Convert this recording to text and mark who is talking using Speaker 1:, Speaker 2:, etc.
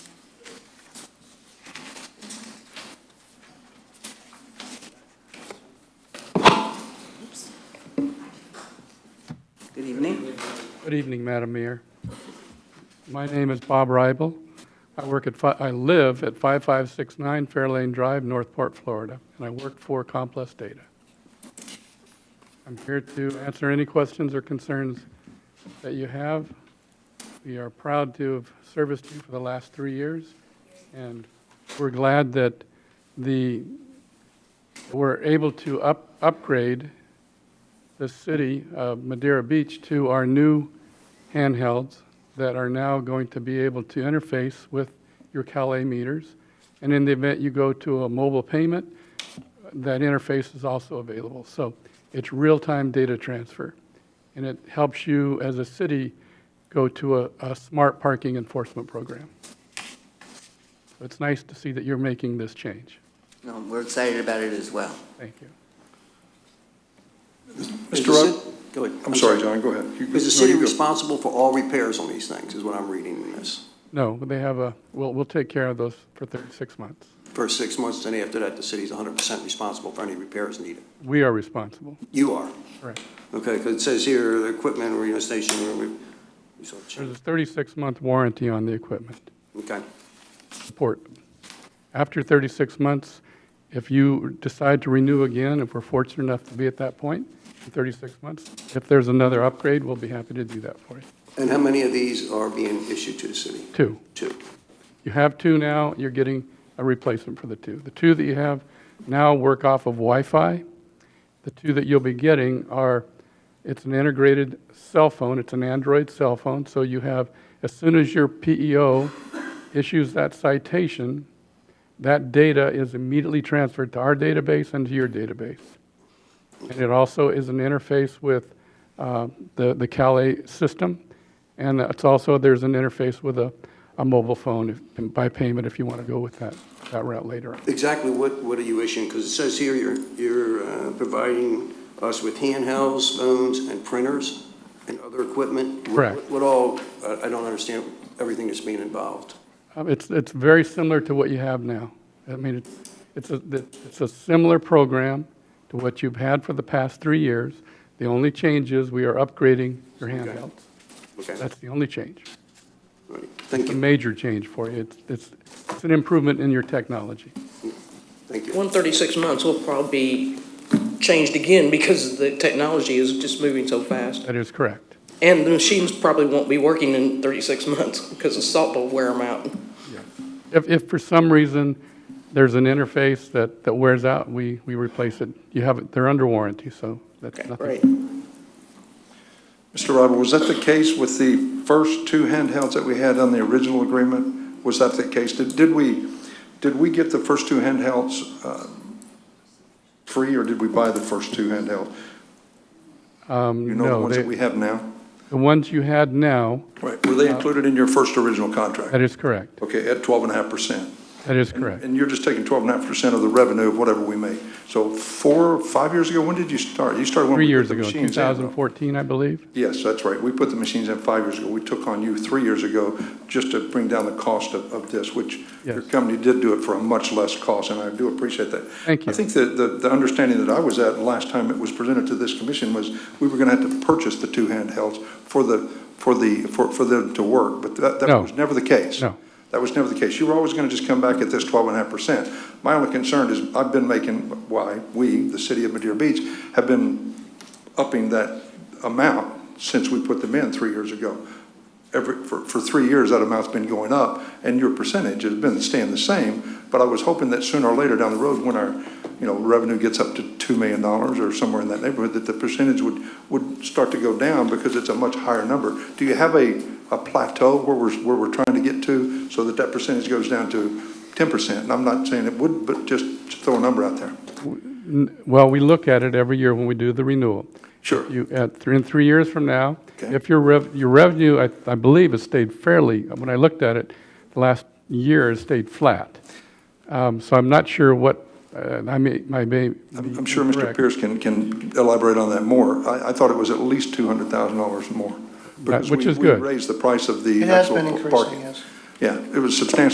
Speaker 1: Good evening, Madam Mayor. My name is Bob Rybel. I work at, fi- I live at 5569 Fairlane Drive, Northport, Florida, and I work for Complex Data. I'm here to answer any questions or concerns that you have. We are proud to have serviced you for the last three years, and we're glad that the, we're able to up, upgrade the city of Madeira Beach to our new handhelds that are now going to be able to interface with your Calais meters. And in the event you go to a mobile payment, that interface is also available. So it's real-time data transfer. And it helps you, as a city, go to a, a smart parking enforcement program. So It's nice to see that you're making this change.
Speaker 2: No, we're excited about it as well.
Speaker 1: Thank you.
Speaker 3: Mr.
Speaker 4: Is the
Speaker 3: Rudd?
Speaker 4: ci- Go ahead.
Speaker 3: I'm sorry, John, go ahead. You-
Speaker 4: Is the
Speaker 3: no,
Speaker 4: city
Speaker 3: you go.
Speaker 4: responsible for all repairs on these things, is what I'm reading in this?
Speaker 1: No, they have a, we'll, we'll take care of those for 36 months.
Speaker 4: For six months, then after that, the city's 100% responsible for any repairs needed?
Speaker 1: We are responsible.
Speaker 4: You are,
Speaker 1: Correct.
Speaker 4: okay, because it says here, the equipment, radio station, we- we- we saw
Speaker 1: There's
Speaker 4: it.
Speaker 1: a 36-month warranty on the equipment,
Speaker 4: okay.
Speaker 1: support. After 36 months, if you decide to renew again, if we're fortunate enough to be at that point, in 36 months, if there's another upgrade, we'll be happy to do that for you.
Speaker 4: And how many of these are being issued to the city?
Speaker 1: Two.
Speaker 4: Two.
Speaker 1: You have two now, you're getting a replacement for the two. The two that you have now work off of Wi-Fi. The two that you'll be getting are, it's an integrated cell phone, it's an Android cell phone, so you have, as soon as your PEO issues that citation, that data is immediately transferred to our database and to your database. And it also is an interface with uh, the the Calais system, and it's also, there's an interface with a, a mobile phone if- by payment if you want to go with that, that route later. on.
Speaker 4: Exactly what, what are you issuing? Because it says here you're, you're uh, providing us with handhelds, phones, and printers, and other equipment. What-
Speaker 1: Correct.
Speaker 4: What all, I I don't understand everything that's being involved.
Speaker 1: Um, It's, it's very similar to what you have now. I mean, it's, it's a, it's a similar program to what you've had for the past three years. The only change is we are upgrading your handhelds.
Speaker 4: Okay,
Speaker 1: That's the only change.
Speaker 4: all right. thank
Speaker 1: A
Speaker 4: you,
Speaker 1: major change for you. It's, it's, it's an improvement in your technology.
Speaker 4: thank you.
Speaker 3: 136 months will probably be changed again because the technology is just moving so fast.
Speaker 1: That is correct.
Speaker 3: And the machines probably won't be working in 36 months because the salt will wear them out.
Speaker 1: If, if for some reason there's an interface that, that wears out, we, we replace it. You have, it. they're under warranty, so that's
Speaker 3: Okay,
Speaker 1: nothing.
Speaker 3: great.
Speaker 5: Mr. Robert, was that the case with the first two handhelds that we had on the original agreement? Was that the case? Did, did we, did we get the first two handhelds, uh, free or did we buy the first two handhelds? You
Speaker 1: Um,
Speaker 5: know, the
Speaker 1: no,
Speaker 5: ones that
Speaker 1: they-
Speaker 5: we have now?
Speaker 1: the ones you had now,
Speaker 5: Right, were they
Speaker 1: Uh,
Speaker 5: included in your first original
Speaker 1: that
Speaker 5: contract?
Speaker 1: is correct.
Speaker 5: Okay, at twelve and a half percent?
Speaker 1: That is correct.
Speaker 5: And you're just taking twelve and a half percent of the revenue of whatever we make. So four, five years ago, when did you start? You started when
Speaker 1: Three
Speaker 5: we put
Speaker 1: years
Speaker 5: the
Speaker 1: ago,
Speaker 5: machines in, though.
Speaker 1: 2014, I believe.
Speaker 5: Yes, that's right. We put the machines in five years ago. We took on you three years ago just to bring down the cost of, of this, which your
Speaker 1: Yes.
Speaker 5: company did do it for a much less cost, and I do appreciate that.
Speaker 1: Thank you.
Speaker 5: I think that the, the understanding that I was at last time it was presented to this commission was we were gonna have to purchase the two handhelds for the, for the, for, for them to work, but that,
Speaker 1: No.
Speaker 5: that was never the case.
Speaker 1: No.
Speaker 5: That was never the case. You were always going to just come back at this twelve and a half percent. My only concern is I've been making, why, we, the city of Madeira Beach, have been upping that amount since we put them in three years ago. Every, for, for three years, that amount's been going up and your percentage has been staying the same. But I was hoping that sooner or later down the road, when our, you know, revenue gets up to two million dollars or somewhere in that neighborhood, that the percentage would, would start to go down because it's a much higher number. Do you have a, a plateau where we're, where we're trying to get to so that that percentage goes down to ten percent? And I'm not saying it would, but just throw a number out there.
Speaker 1: N- Well, we look at it every year when we do the renewal.
Speaker 5: Sure.
Speaker 1: You, at, three- in three years from now,
Speaker 5: Okay.
Speaker 1: if your rev, your revenue, I, I believe, has stayed fairly, when I looked at it, the last year has stayed flat. Um, so I'm not sure what, uh, I may, I may.
Speaker 5: I'm
Speaker 1: be
Speaker 5: I'm sure Mr.
Speaker 1: incorrect.
Speaker 5: Pierce can, can elaborate on that more. I, I thought it was at least two hundred thousand dollars more. because
Speaker 1: which
Speaker 5: we-
Speaker 1: is good.
Speaker 5: We raised the price of the
Speaker 6: It has been
Speaker 5: actual
Speaker 6: increasing,
Speaker 5: parking.
Speaker 6: yes.
Speaker 5: Yeah, it was substantially